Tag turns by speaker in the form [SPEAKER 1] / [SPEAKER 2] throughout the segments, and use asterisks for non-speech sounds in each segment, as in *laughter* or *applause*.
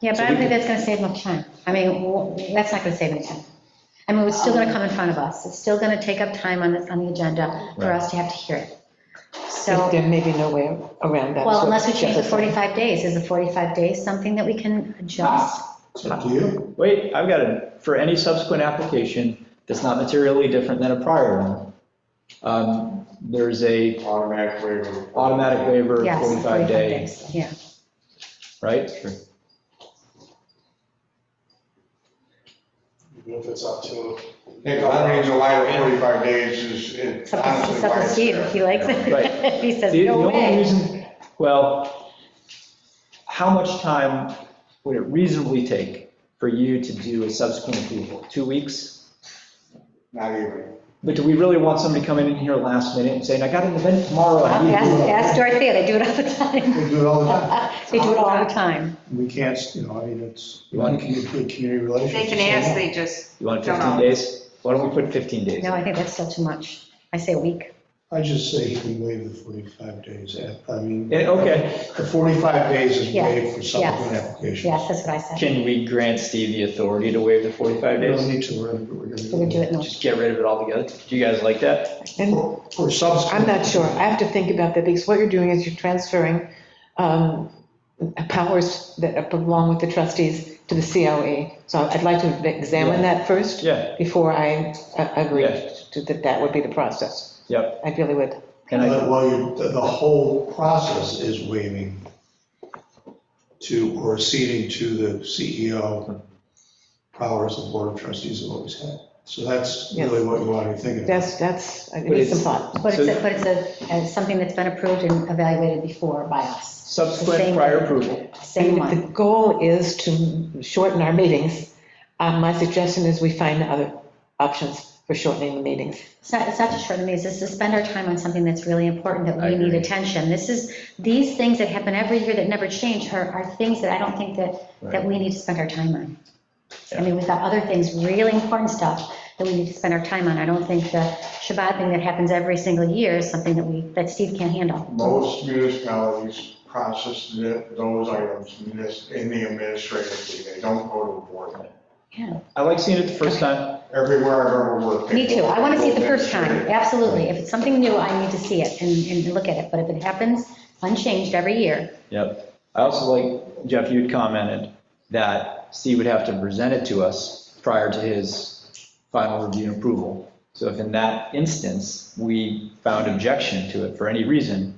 [SPEAKER 1] Yeah, but I don't think that's going to save much time. I mean, w- that's not going to save any time. I mean, it's still going to come in front of us. It's still going to take up time on the, on the agenda for
[SPEAKER 2] Right.
[SPEAKER 1] us to have to hear it. So,
[SPEAKER 3] There there may be no way around that.
[SPEAKER 1] well,
[SPEAKER 3] so
[SPEAKER 1] unless we
[SPEAKER 3] it's
[SPEAKER 1] change the
[SPEAKER 3] just-
[SPEAKER 1] 45 days, is the 45 days something that we can adjust?
[SPEAKER 2] It's up
[SPEAKER 4] to you.
[SPEAKER 2] Wait, I've got it. For any subsequent application that's not materially different than a prior one, um, there's a
[SPEAKER 4] Automatic waiver.
[SPEAKER 2] automatic waiver of
[SPEAKER 1] Yes,
[SPEAKER 2] 45 day,
[SPEAKER 1] days. Yeah,
[SPEAKER 2] right?
[SPEAKER 5] Even if it's up to.
[SPEAKER 4] Yeah, 'cause I mean, July to 45 days is, it
[SPEAKER 1] it's up to-
[SPEAKER 4] honestly.
[SPEAKER 1] it's up
[SPEAKER 4] why
[SPEAKER 1] to
[SPEAKER 4] it's
[SPEAKER 1] Steve
[SPEAKER 4] there.
[SPEAKER 1] if he likes it.
[SPEAKER 2] Right.
[SPEAKER 1] If *laughs* he says,
[SPEAKER 2] The the
[SPEAKER 1] no
[SPEAKER 2] only
[SPEAKER 1] way.
[SPEAKER 2] reason, well, how much time would it reasonably take for you to do a subsequent approval? Two weeks?
[SPEAKER 4] Not even.
[SPEAKER 2] But do we really want somebody coming in here last minute and saying, I got an event tomorrow? I need to do
[SPEAKER 1] Ask
[SPEAKER 2] it."
[SPEAKER 1] ask Dorothea, they do it all the time.
[SPEAKER 5] We do it all the time.
[SPEAKER 1] They do it all the time.
[SPEAKER 5] We can't, you know, I mean, it's,
[SPEAKER 2] You want-
[SPEAKER 5] commu- good community relations.
[SPEAKER 6] They can
[SPEAKER 5] It's
[SPEAKER 6] ask,
[SPEAKER 5] so
[SPEAKER 6] they just,
[SPEAKER 2] You want
[SPEAKER 6] Don't
[SPEAKER 2] 15
[SPEAKER 6] know.
[SPEAKER 2] days? Why don't we put 15 days?
[SPEAKER 1] No, I think that's still too much. I say a week.
[SPEAKER 5] long. I just say you can waive the 45 days. I mean.
[SPEAKER 2] Yeah, okay.
[SPEAKER 5] The 45 days is
[SPEAKER 1] Yeah,
[SPEAKER 5] waived for subsequent
[SPEAKER 1] yes,
[SPEAKER 5] applications.
[SPEAKER 1] Yes, that's what I said.
[SPEAKER 2] Can we grant Steve the authority to waive the 45
[SPEAKER 5] We don't
[SPEAKER 2] days?
[SPEAKER 5] need to, we're, we're gonna.
[SPEAKER 1] We would do it in the
[SPEAKER 2] Just get rid of it altogether? Do you guys like that?
[SPEAKER 3] And
[SPEAKER 5] For- For
[SPEAKER 3] I'm
[SPEAKER 5] subsequent.
[SPEAKER 3] not sure. I have to think about that because what you're doing is you're transferring um, powers that belong with the trustees to the COE. So I'd like to examine that first.
[SPEAKER 2] Yeah.
[SPEAKER 3] Before I uh, agree
[SPEAKER 2] Yeah.
[SPEAKER 3] to- that that would be the process.
[SPEAKER 2] Yep.
[SPEAKER 3] I really would.
[SPEAKER 2] And I,
[SPEAKER 5] But, Well, you- the, the whole process is waiving to, or ceding to the CEO powers the Board of Trustees have always had. So that's really what you want to be thinking about.
[SPEAKER 3] That's, that's, it needs some thought.
[SPEAKER 1] But it's,
[SPEAKER 2] So-
[SPEAKER 1] a- but it's a, uh, something that's been approved and evaluated before by us,
[SPEAKER 2] subsequent
[SPEAKER 1] Same.
[SPEAKER 2] prior approval.
[SPEAKER 1] same
[SPEAKER 3] The
[SPEAKER 1] one.
[SPEAKER 3] goal is to shorten our meetings. Uh, My suggestion is we find other options for shortening the meetings.
[SPEAKER 1] It's not, it's not to shorten the meetings, it's to spend our time on something that's really important, that
[SPEAKER 2] I
[SPEAKER 1] we need
[SPEAKER 2] agree.
[SPEAKER 1] attention. This is, these things that happen every year that never change are, are things that I don't think that, that we need to spend our time on. I mean, we've got other things, really important stuff that we need to spend our time on. I don't think the Shabbat thing that happens every single year is something that we, that Steve can't handle.
[SPEAKER 4] Most municipalities process thi- those items munis- in the administrative fee. They don't go to the board.
[SPEAKER 1] Yeah,
[SPEAKER 2] I like seeing it the first time.
[SPEAKER 4] Everywhere I've ever worked. they
[SPEAKER 1] me too.
[SPEAKER 4] go-
[SPEAKER 1] I want to see it the
[SPEAKER 4] go
[SPEAKER 1] first time,
[SPEAKER 4] administrative.
[SPEAKER 1] absolutely. If it's something new, I need to see it and, and look at it. But if it happens unchanged every year,
[SPEAKER 2] Yep. I also like, Jeff, you'd commented that Steve would have to present it to us prior to his final review and approval. So if in that instance, we found objection to it for any reason,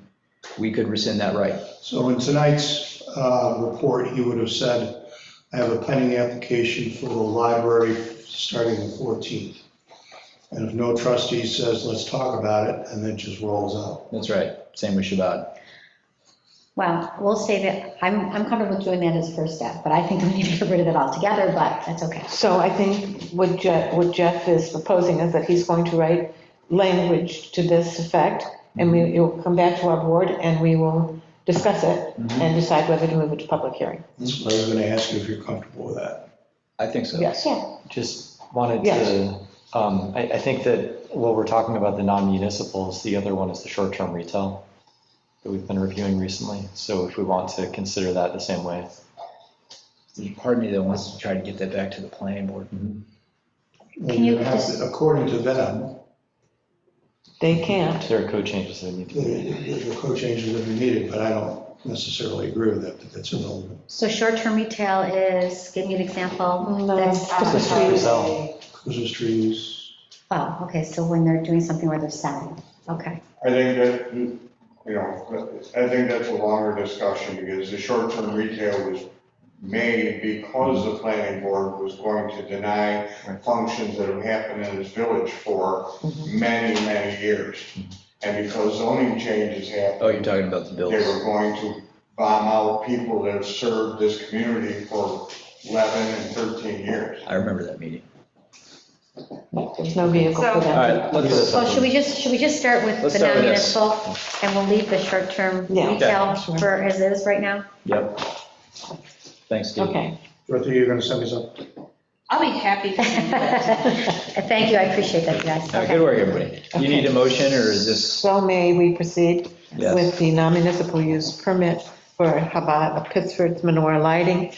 [SPEAKER 2] we could rescind that right.
[SPEAKER 5] So in tonight's uh, report, he would have said, I have a pending application for the library starting the 14th. And if no trustee says, let's talk about it, and then just rolls out.
[SPEAKER 2] That's right. Same with Shabbat.
[SPEAKER 1] well, we'll say that, I'm, I'm comfortable with doing that as a first step, but I think we need to get rid of it altogether, but that's okay.
[SPEAKER 3] So I think what Jeff, what Jeff is proposing is that he's going to write language to this effect, and
[SPEAKER 2] Mm-hmm.
[SPEAKER 3] we, it'll come back to our board, and we will discuss it
[SPEAKER 2] Mm-hmm.
[SPEAKER 3] and decide whether to move it to public hearing.
[SPEAKER 5] That's what I was going to ask you if you're comfortable with that.
[SPEAKER 2] I think so.
[SPEAKER 3] Yes.
[SPEAKER 1] Yeah,
[SPEAKER 7] Just wanted
[SPEAKER 3] Yes.
[SPEAKER 7] to, um, I, I think that while we're talking about the non-municipals, the other one is the short-term retail that we've been reviewing recently. So if we want to consider that the same way.
[SPEAKER 2] There's part of me that wants to try to get that back to the planning board.
[SPEAKER 1] Can you
[SPEAKER 5] And have to- According to them,
[SPEAKER 2] Mm-hmm.
[SPEAKER 3] They can't.
[SPEAKER 7] There are code changes that need to
[SPEAKER 5] the-
[SPEAKER 7] be made.
[SPEAKER 5] the code changes would be needed, but I don't necessarily agree with that, that that's irrelevant.
[SPEAKER 1] so short-term retail is, give me an example.
[SPEAKER 3] No,
[SPEAKER 1] That's-
[SPEAKER 3] Christmas trees.
[SPEAKER 7] Sell.
[SPEAKER 5] Christmas trees,
[SPEAKER 1] Oh, okay, so when they're doing something where they're selling, okay.
[SPEAKER 4] I think that, you know, I think that's a longer discussion because the short-term retail was made because the planning board was going to deny functions that have happened in this village for many, many years. And because zoning changes happened,
[SPEAKER 2] Oh, you're talking about the
[SPEAKER 4] they
[SPEAKER 2] bills.
[SPEAKER 4] were going to bomb out people that have served this community for 11 and 13 years.
[SPEAKER 2] I remember that meeting.
[SPEAKER 3] There's no vehicle for
[SPEAKER 2] All
[SPEAKER 3] them.
[SPEAKER 2] right, let's do this.
[SPEAKER 1] Well, should we just, should we just start with
[SPEAKER 2] Let's
[SPEAKER 1] the
[SPEAKER 2] start with this.
[SPEAKER 1] non-municipal, and we'll leave the short-term
[SPEAKER 3] Yeah.
[SPEAKER 1] retail
[SPEAKER 3] Okay, sure.
[SPEAKER 1] for as is right now?
[SPEAKER 2] Yep. Thanks, Steve.
[SPEAKER 3] Okay.
[SPEAKER 5] Dorothy, you're going to send me something?
[SPEAKER 6] I'll be happy to do that.
[SPEAKER 1] *laughs* Uh, Thank you, I appreciate that, you guys.
[SPEAKER 2] All right, Good work, everybody. You need a motion, or is this,
[SPEAKER 3] So may we proceed
[SPEAKER 2] Yes.
[SPEAKER 3] with the non-municipal use permit for Chabad of Pittsford's menorah lighting